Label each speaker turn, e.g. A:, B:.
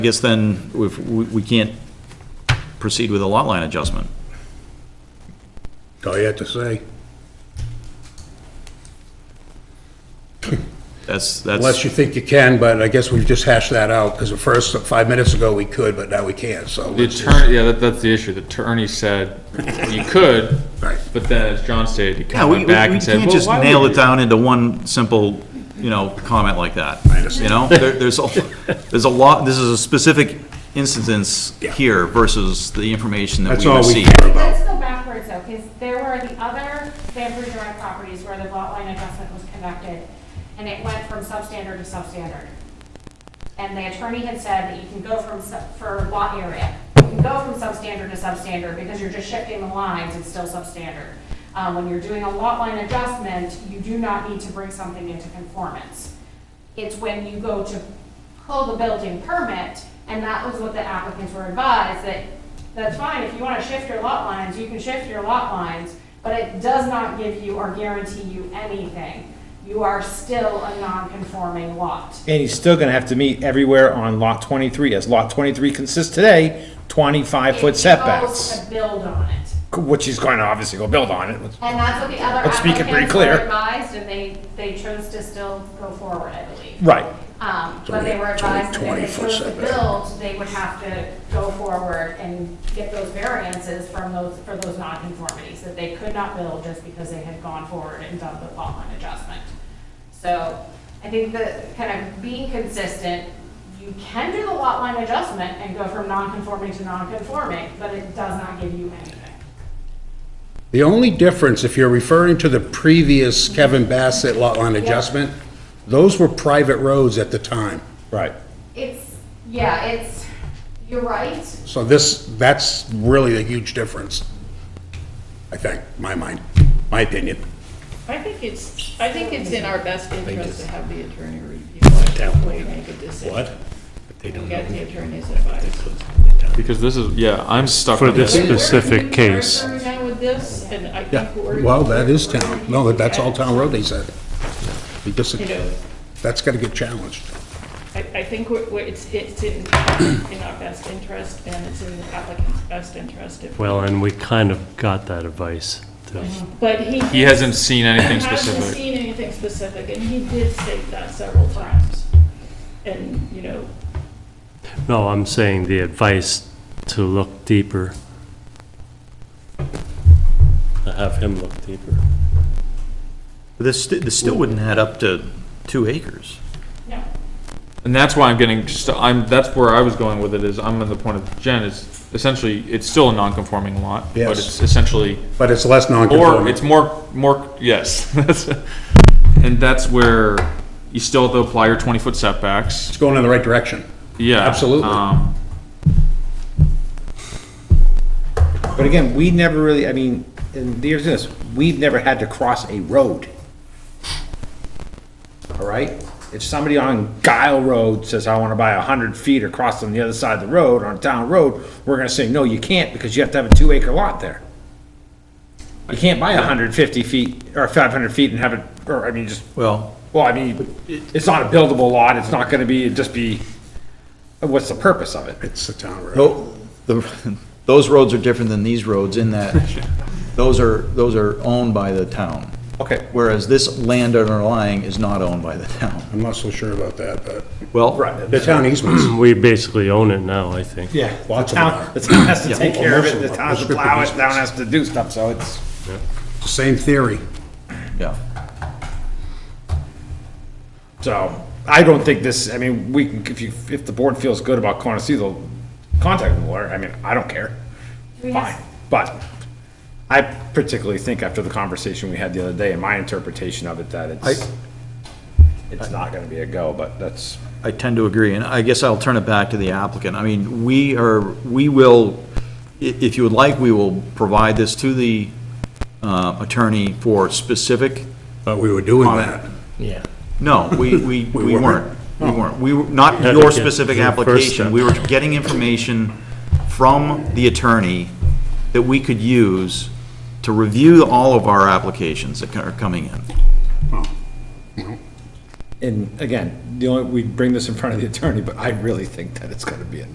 A: I guess then, if, we, we can't proceed with a lot line adjustment.
B: That's All you have to say,
A: That's, that's.
B: unless you think you can, but I guess we've just hashed that out, because at first, five minutes ago, we could, but now we can't, so.
C: The
B: let's just-
C: attorney, yeah, that, that's the issue. The attorney said you could,
B: Right.
C: but then as John stated, he
A: Yeah,
C: kind of
A: we, we
C: went
A: we
C: back and said,
A: can't
C: well,
A: just
C: why would
A: nail it
C: you?"
A: down into one simple, you know, comment like that. You know, there, there's, a there's a lot, this is a specific instance
B: Yeah.
A: here versus the information that
B: That's
A: we
B: all we
A: received.
B: care
D: Let's
B: about.
D: go backwards though, because there were the other Bamboo Drive properties where the lot line adjustment was conducted, and it went from substandard to substandard. And the attorney had said that you can go from, sub- for lot area, you can go from substandard to substandard because you're just shifting the lines, it's still substandard. Uh, When you're doing a lot line adjustment, you do not need to bring something into conformance. It's when you go to pull the building permit, and that was what the applicants were advised, that that's fine, if you want to shift your lot lines, you can shift your lot lines, but it does not give you or guarantee you anything. You are still a non-conforming lot.
E: And he's still gonna have to meet everywhere on lot twenty-three, as lot twenty-three consists today, twenty-five foot
D: It goes
E: setbacks,
D: to build on it.
E: which he's gonna obviously go build on it.
D: And that's what the other
E: Let's speak it pretty
D: applicants were
E: clear.
D: advised, and they, they chose to still go forward, I believe.
E: Right,
D: Um, But they were
B: It's only
D: advised that
B: 20
D: if they
B: foot
D: chose to
B: setback.
D: build, they would have to go forward and get those variances from those, for those nonconformities, that they could not build just because they had gone forward and done the lot line adjustment. So I think that kind of being consistent, you can do the lot line adjustment and go from nonconforming to nonconforming, but it does not give you anything.
B: The only difference, if you're referring to the previous Kevin Bassett lot line adjustment, those were private roads at the time.
E: right.
D: It's, yeah, it's, you're right,
B: So this, that's really a huge difference, I think, my mind, my opinion.
F: I think it's, I think it's in our best interest to have the attorney review it before we make a decision. What? They don't Get the attorney's advice.
C: Because this is, yeah, I'm stuck
G: For
C: on
G: this
C: this.
G: specific case.
F: We're now with this, and I
B: Yeah,
F: think we're.
B: well, that is town, no, that's all
F: Yeah.
B: town road, they said. We just-
F: You know,
B: That's gotta get challenged.
F: I, I think we're, we're- it's, it's in, in our best interest, and it's in the applicant's best interest. if-
G: Well, and we kind of got that advice, too.
F: But he.
C: He hasn't seen anything
F: Hasn't
C: specific.
F: seen anything specific, and he did state that several times. And, you know,
G: No, I'm saying the advice to look deeper. To have him look deeper.
A: But This, sti- this still wouldn't add up to two acres.
F: no.
C: And that's why I'm getting, just, I'm, that's where I was going with it, is I'm at the point of Jen, is essentially, it's still a non-conforming lot, but
B: Yes.
C: it's essentially,
B: But it's less non-conforming.
C: or it's more, more, yes. That's- And that's where you still have to apply your twenty-foot setbacks.
B: It's going in the right direction.
C: Yeah.
B: Absolutely.
C: um,
E: But again, we never really, I mean, and here's this, we've never had to cross a road. All right? If somebody on Guile Road says, I wanna buy a hundred feet across on the other side of the road, on a town road, we're gonna say, no, you can't, because you have to have a two acre lot there. You can't buy hundred and fifty feet, or five hundred feet and have it, or, I mean, just,
A: Well,
E: well, I mean, it's not a buildable lot, it's not gonna be, it'd just be, what's the purpose of it?
B: It's the town road.
A: tho- Oh, the, those roads are different than these roads in that those are, those are owned by the town.
E: Okay.
A: Whereas this land underlying is not owned by the town.
B: I'm not so sure about that, but
A: Well.
B: the town easements,
G: We basically own it now, I think.
E: Yeah, the
B: Lots of them are.
E: town, the town has to
A: Yeah.
E: take care of it, the town has to
B: Prescriptive
E: plow it, the town
B: easements.
E: has to do stuff, so it's,
B: same theory.
A: Yeah.
E: so, I don't think this, I mean, we can, if you, if the board feels good about Conocevo, contact the lawyer, I mean, I don't care,
D: Do we have-
E: fine, but I particularly think after the conversation we had the other day, and my interpretation of it, that it's, it's not gonna be a go, but that's,
A: I tend to agree, and I guess I'll turn it back to the applicant. I mean, we are, we will, i- if you would like, we will provide this to the uh, attorney for specific,
B: But we were doing that.
A: no, we, we, we
B: weren't.
A: weren't. We weren't. We were, not
G: Yeah,
A: your
G: yeah,
A: specific
G: the first
A: application.
G: step.
A: We were getting information from the attorney that we could use to review all of our applications that are coming in.
E: and again, the only, we bring this in front of the attorney, but I really think that it's gonna be a